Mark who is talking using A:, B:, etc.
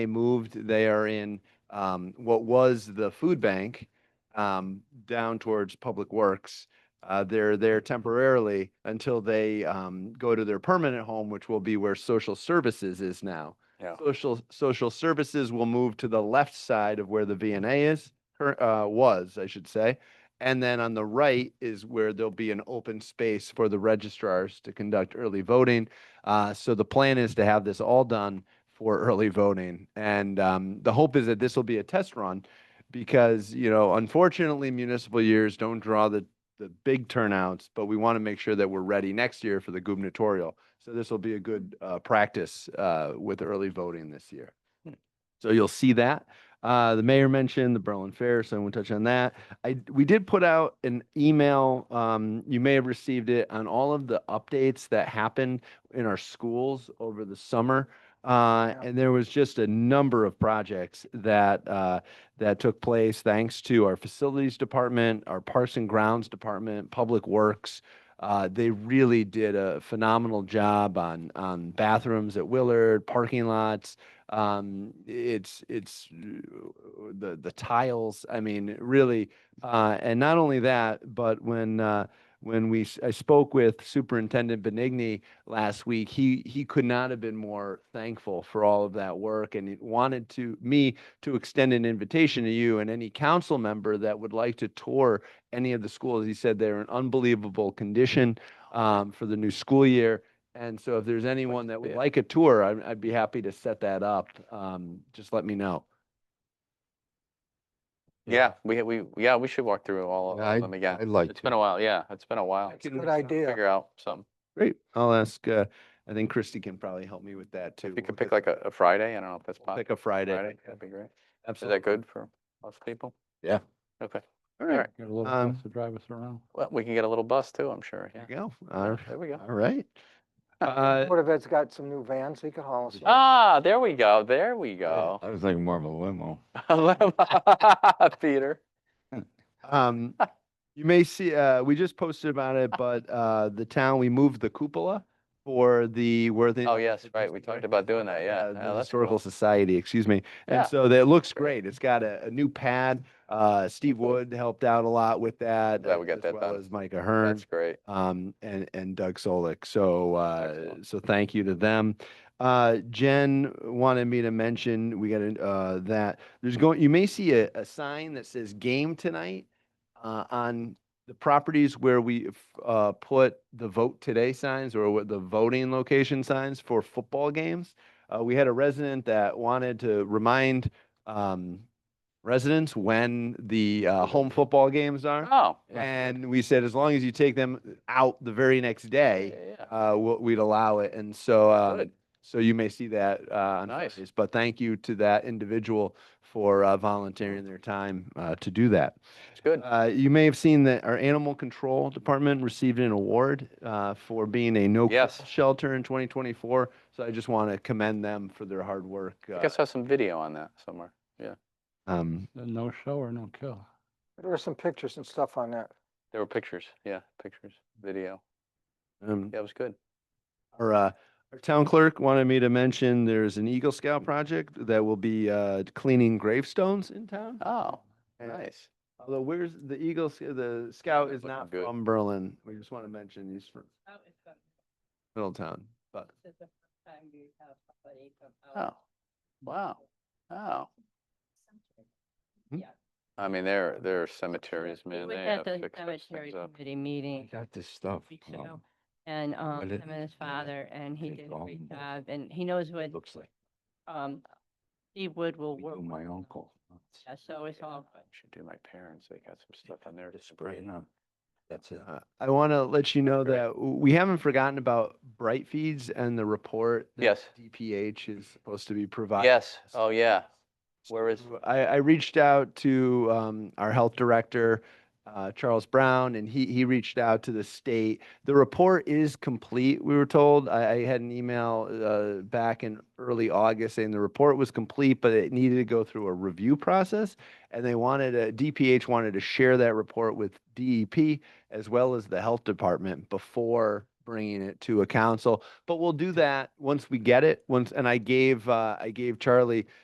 A: They moved, they are in um, what was the food bank um, down towards Public Works. Uh, They're there temporarily until they um, go to their permanent home, which will be where social services is now.
B: Yeah.
A: Social, social services will move to the left side of where the VNA is, cur- uh, was, I should say. And then on the right is where there'll be an open space for the registrars to conduct early voting. Uh, so the plan is to have this all done for early voting. And um, the hope is that this will be a test run because, you know, unfortunately, municipal years don't draw the, the big turnouts, but we want to make sure that we're ready next year for the gubernatorial. So this will be a good uh, practice uh, with early voting this year. So you'll see that. Uh, the mayor mentioned the Berlin Fair, so I won't touch on that. I, we did put out an email, um, you may have received it, on all of the updates that happened in our schools over the summer. Uh, and there was just a number of projects that, uh, that took place thanks to our facilities department, our parks and grounds department, public works. Uh, they really did a phenomenal job on, on bathrooms at Willard, parking lots, um it's it's uh, the the tiles i mean really uh and not only that but when uh when we s- i spoke with superintendent benigni last week he he could not have been more thankful for all of that work and he wanted to me to extend an invitation to you and any council member that would like to tour any of the schools he said they're in unbelievable condition um for the new school year and so if there's anyone that would
B: bit.
A: like a tour, I'd, I'd be happy to set that up. Um, just let me know.
B: Yeah, we, we, yeah, we should walk through all
C: Yeah, I-
B: of them again.
C: I'd like
B: It's been a while, yeah, it's been a while.
A: can-
C: Good idea.
B: Figure out something.
A: Great. I'll ask, uh, I think Christy can probably help me with that too.
B: If you could pick like a, a Friday, I don't know if that's
A: We'll
B: possible.
A: Pick a Friday.
B: Friday, that'd be great. Is
A: Absolutely.
B: that good for most people?
C: Yeah.
B: Okay,
A: All
B: all
A: right.
B: right.
C: Get a little
A: Um,
C: bus to drive us around.
B: well, we can get a little bus too, I'm sure,
A: There you
B: yeah.
A: go. All
B: There we go.
A: all right. Uh,
D: Board of Ed's got some new vans, he could haul us. in.
B: Ah, there we go, there we go.
C: I was thinking more of a limo.
B: Peter,
A: Um, you may see, uh, we just posted about it, but, uh, the town, we moved the cupola for the Worthing.
B: Oh, yes, right, we talked about doing that, yeah.
A: uh,
B: Yeah,
A: the
B: that's
A: Historical
B: cool.
A: Society, excuse me.
B: Yeah.
A: And so that looks great. It's got a, a new pad. Uh, Steve Wood helped out a lot with that.
B: Glad
A: uh,
B: we got
A: as
B: that
A: well
B: done.
A: As Micah Hearn
B: that's great.
A: um, and, and Doug Solik. So, uh,
B: Excellent.
A: so thank you to them. Uh, Jen wanted me to mention, we got, uh, that there's going, you may see a, a sign that says game tonight, uh, on the properties where we, uh, put the vote today signs or what the voting location signs for football games. Uh, we had a resident that wanted to remind, um, residents when the, uh, home football games are.
B: Oh. yeah,
A: And we said, as long as you take them out the very next
B: yeah,
A: day,
B: yeah.
A: uh, we'll- we'd allow it. And so, um,
B: Good.
A: so you may see that, uh, on
B: Nice.
A: Fridays. But thank you to that individual for, uh, volunteering their time, uh, to do that.
B: It's good,
A: Uh, you may have seen that our animal control department received an award, uh, for being a no kill
B: Yes.
A: shelter in twenty twenty-four. So I just want to commend them for their hard work.
B: I
A: uh,
B: think I saw some video on that somewhere.
A: Um,
C: The No show or no kill.
D: There were some pictures and stuff on that.
B: There were pictures, yeah, pictures, video,
A: um,
B: yeah, it was good.
A: Our, uh, our town clerk wanted me to mention there's an Eagle Scout project that will be, uh, cleaning gravestones in town.
B: Oh,
A: Uh,
B: nice.
A: Although where's the Eagle, Sc- the Scout
B: that's
A: is
B: looking
A: not
B: good.
A: from Berlin. We just want to mention he's from
E: Oh,
A: Middletown, but
E: This is the first time we have somebody from
B: Oh,
E: out.
B: wow. Oh,
A: Hmm?
E: Yeah.
B: I mean, there, there are Hmm. cemeteries,
E: We
B: man, they
E: was at
B: have
E: the
B: fixed those
E: Cemetery
B: things up.
E: committee meeting
C: got this stuff.
E: weeks ago, and, um,
C: it-
E: him and his father, and he
C: it's
E: did a
C: gone.
E: great job, and he knows what,
C: Looks like
E: um, Steve Wood will
C: we
E: work.
C: do my
E: with, um,
C: uncle.
E: Yeah, so it's all good.
B: Should do my parents, they got some stuff on there.
C: It's spraying on. That's it.
A: uh, I want to let you know
B: Great.
A: that w- we haven't forgotten about Bright Feeds and the report. that
B: Yes.
A: DPH is supposed to be providing.
B: Yes, oh, yeah. Where is,
A: w- I, I reached out to um, our health director, uh, Charles Brown, and he, he reached out to the state. The report is complete, we were told. I, I had an email uh, back in early August saying the report was complete, but it needed to go through a review process. And they wanted, a- DPH wanted to share that report with DEP as well as the health department before bringing it to a council. But we'll do that once we get it, once, and I gave, uh, I gave Charlie